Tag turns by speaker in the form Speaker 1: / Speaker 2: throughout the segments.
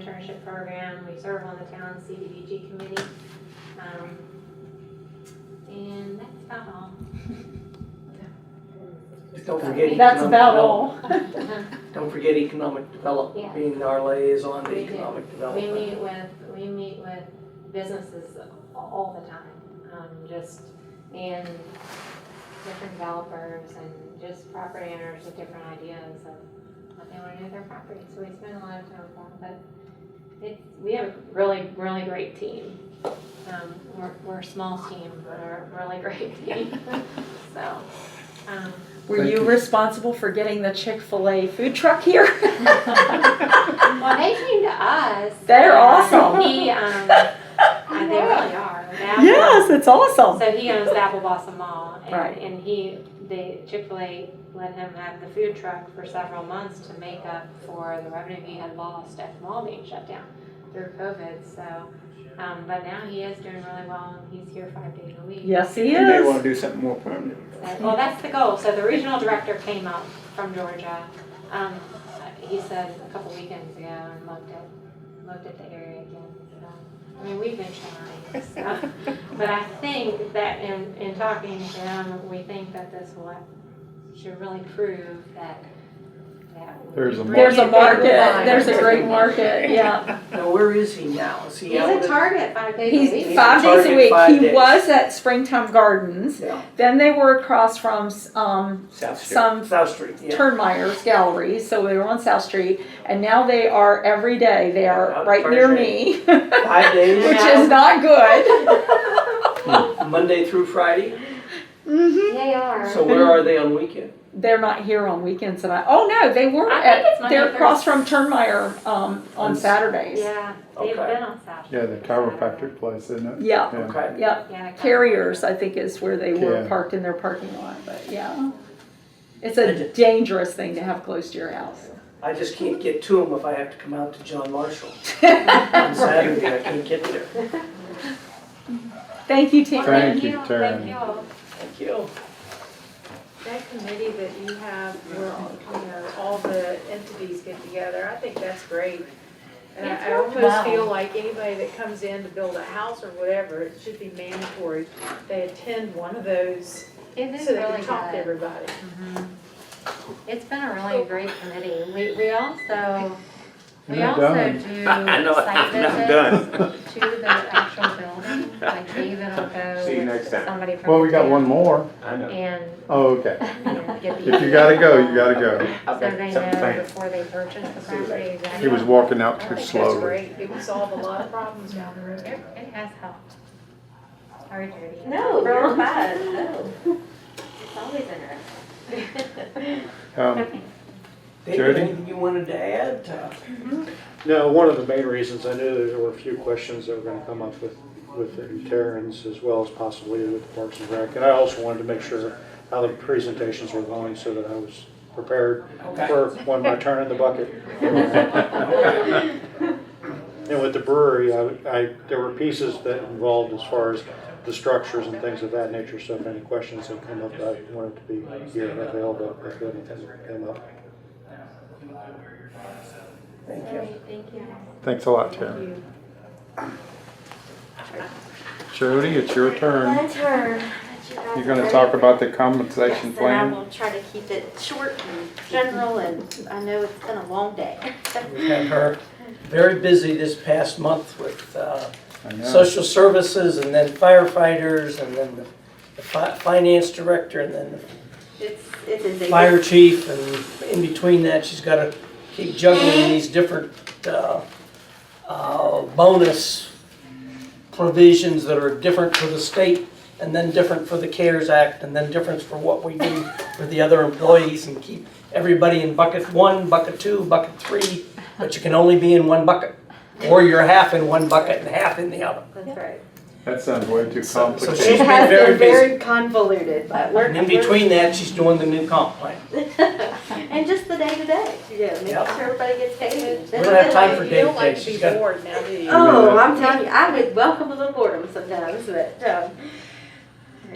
Speaker 1: internship program, we serve on the town CDBG committee. Um, And that's about all.
Speaker 2: Don't forget.
Speaker 3: That's
Speaker 2: economic
Speaker 3: about
Speaker 2: development.
Speaker 3: all.
Speaker 2: Don't forget economic development,
Speaker 1: Yes.
Speaker 2: being our liaison to
Speaker 1: We do.
Speaker 2: economic
Speaker 1: We
Speaker 2: development.
Speaker 1: meet with, we meet with businesses a- all the time, um, just, and different developers and just property owners with different ideas of what they wanna do with their property, so we spend a lot of time with them, but it, we have a really, really great team. Um, we're, we're a small team, but we're a really great team, so, um,
Speaker 3: Were
Speaker 4: Thank
Speaker 3: you
Speaker 4: you.
Speaker 3: responsible for getting the Chick-fil-A food truck here?
Speaker 1: well, they came to us.
Speaker 3: They're
Speaker 1: and
Speaker 3: awesome.
Speaker 1: He, um, they really are. They
Speaker 3: Yes, it's awesome.
Speaker 1: So he owns the Apple Blossom Mall, and,
Speaker 3: Right.
Speaker 1: and he, the Chick-fil-A let him have the food truck for several months to make up for the revenue he had lost at the mall being shut down through COVID, so, um, but now he is doing really well, and he's here five days a week.
Speaker 3: Yes, he
Speaker 4: You may want
Speaker 3: is.
Speaker 4: to do something more permanent.
Speaker 1: Uh, Well, that's the goal. So the regional director came up from Georgia. Um, he said a couple weekends ago and looked at, looked at the area again. So, I mean, we've been trying, so. But I think that in, in talking to them, we think that this will, should really prove that, that. we
Speaker 4: There's a
Speaker 1: bring
Speaker 3: There's a
Speaker 1: it back
Speaker 3: market,
Speaker 1: to life.
Speaker 3: there's a great market, yeah.
Speaker 2: Now, where is he now? Is he
Speaker 1: He's
Speaker 2: out?
Speaker 1: a
Speaker 2: at-
Speaker 1: target five days a week.
Speaker 3: He's five days a
Speaker 2: Target
Speaker 3: week.
Speaker 2: five
Speaker 3: He
Speaker 2: days.
Speaker 3: was at Springtime Gardens.
Speaker 2: Yeah,
Speaker 3: Then they were across from, um,
Speaker 4: South Street.
Speaker 3: some
Speaker 2: South Street, yeah.
Speaker 3: Turnmeyer's Gallery, so they were on South Street, and now they are every day. They are
Speaker 2: Out
Speaker 3: right near me,
Speaker 2: Thursday.
Speaker 3: which
Speaker 2: Five days,
Speaker 3: is not good.
Speaker 2: Monday through Friday.
Speaker 3: hmm
Speaker 1: They are.
Speaker 2: So where are they on weekend?
Speaker 3: They're not here on weekends, and I oh no, they were
Speaker 1: I think
Speaker 3: at.
Speaker 1: it's Monday,
Speaker 3: they're across from
Speaker 1: Thursday.
Speaker 3: Turnmeyer um, on
Speaker 2: On s-
Speaker 3: Saturdays.
Speaker 1: Yeah, they've
Speaker 2: Okay.
Speaker 1: been on South.
Speaker 4: Yeah, the
Speaker 1: Street for
Speaker 4: chiropractic place, isn't it?
Speaker 3: Yeah,
Speaker 4: Yeah.
Speaker 2: Okay.
Speaker 3: yeah.
Speaker 1: Yeah, the
Speaker 3: Carriers, I think, is where they were
Speaker 4: Yeah.
Speaker 3: parked in their parking lot, but
Speaker 1: Oh.
Speaker 3: yeah. It's a dangerous thing to have close to your house.
Speaker 2: I just can't get to them if I have to come out to John Marshall on Saturday. I can't get there.
Speaker 3: Thank you,
Speaker 1: Well,
Speaker 4: you,
Speaker 3: Taryn.
Speaker 1: Thank
Speaker 4: Taryn.
Speaker 1: you all.
Speaker 2: Thank you.
Speaker 5: That committee that you have, where, you know, all the entities get together, I think that's great. And I- I almost feel like anybody that comes in to build a house or whatever, it should be mandatory, they attend one of those,
Speaker 1: It is
Speaker 5: so they
Speaker 1: really
Speaker 5: can talk to
Speaker 1: good.
Speaker 5: everybody.
Speaker 1: It's been a really great committee. We, we also,
Speaker 4: You're
Speaker 1: we
Speaker 4: not
Speaker 1: also
Speaker 4: done.
Speaker 1: do
Speaker 6: I know,
Speaker 1: site
Speaker 6: I'm not
Speaker 1: visits to the actual building. Like David will
Speaker 6: See you
Speaker 1: go
Speaker 6: next
Speaker 1: with
Speaker 6: time.
Speaker 1: somebody from.
Speaker 4: Well, we
Speaker 1: the
Speaker 4: got
Speaker 1: town
Speaker 4: one more.
Speaker 6: I know.
Speaker 1: And,
Speaker 4: Oh, okay.
Speaker 1: and get the.
Speaker 4: If you gotta go, you gotta go.
Speaker 1: So they
Speaker 6: Okay, something
Speaker 1: know
Speaker 6: planned.
Speaker 1: before they purchase the
Speaker 6: See you
Speaker 1: property.
Speaker 6: later.
Speaker 1: exactly.
Speaker 4: He was walking out
Speaker 5: I
Speaker 4: too
Speaker 5: think
Speaker 2: Oh,
Speaker 5: that's
Speaker 4: slowly.
Speaker 5: great, it would solve a lot of problems down the road.
Speaker 1: It it has helped. Sorry, Judy.
Speaker 7: No, you're fine, no. It's always interesting.
Speaker 4: Um,
Speaker 2: David,
Speaker 4: Jody?
Speaker 2: anything you wanted to add? Uh,
Speaker 8: No, one of the main reasons, I knew there were a few questions that were gonna come up with, with the Terrans as well as possibly with the Parks and Rec. And I also wanted to make sure how the presentations were going so that I was prepared
Speaker 2: Okay.
Speaker 8: for when my turn in the bucket. And with the brewery, I, I, there were pieces that involved as far as the structures and things of that nature. So if any questions that come up, I wanted to be here and available if anything came up.
Speaker 2: Thank you.
Speaker 1: Thank you.
Speaker 4: Thanks a lot, Terry. Jody, it's your turn.
Speaker 7: My turn. But you guys
Speaker 4: You're
Speaker 7: are
Speaker 4: gonna
Speaker 7: ready?
Speaker 4: talk about the compensation
Speaker 7: Yes, and I
Speaker 4: plan?
Speaker 7: will try to keep it short and general, and I know it's been a long day.
Speaker 2: We have her very busy this past month with uh,
Speaker 4: I know.
Speaker 2: social services and then firefighters and then the- the fi- finance director and then
Speaker 7: It's, it is
Speaker 2: the
Speaker 7: a.
Speaker 2: fire chief. And in between that, she's got to keep juggling these different uh, uh, bonus provisions that are different for the state and then different for the CARES Act and then different for what we do for the other employees and keep everybody in bucket one, bucket two, bucket three, but you can only be in one bucket. Or you're half in one bucket and half in the other.
Speaker 7: That's right.
Speaker 4: That sounds way too
Speaker 2: So- so
Speaker 4: complicated.
Speaker 2: she's
Speaker 7: It
Speaker 2: been
Speaker 7: has
Speaker 2: very
Speaker 7: been very convoluted, but we're.
Speaker 2: And in between that, she's doing the new comp plan.
Speaker 7: And just the day to day, you know, making
Speaker 2: Yep.
Speaker 7: sure everybody gets paid.
Speaker 2: We don't have time for
Speaker 5: You don't like
Speaker 2: daycare.
Speaker 5: to be
Speaker 2: She's got-
Speaker 5: bored now, do you?
Speaker 7: Oh, I'm telling you, I would welcome a little boredom sometimes, but, um.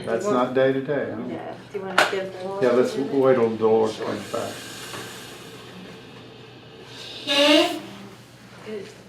Speaker 4: That's not day to day, huh?
Speaker 7: Yeah, do you want to give the?
Speaker 4: Yeah, let's wait till Dolores comes back.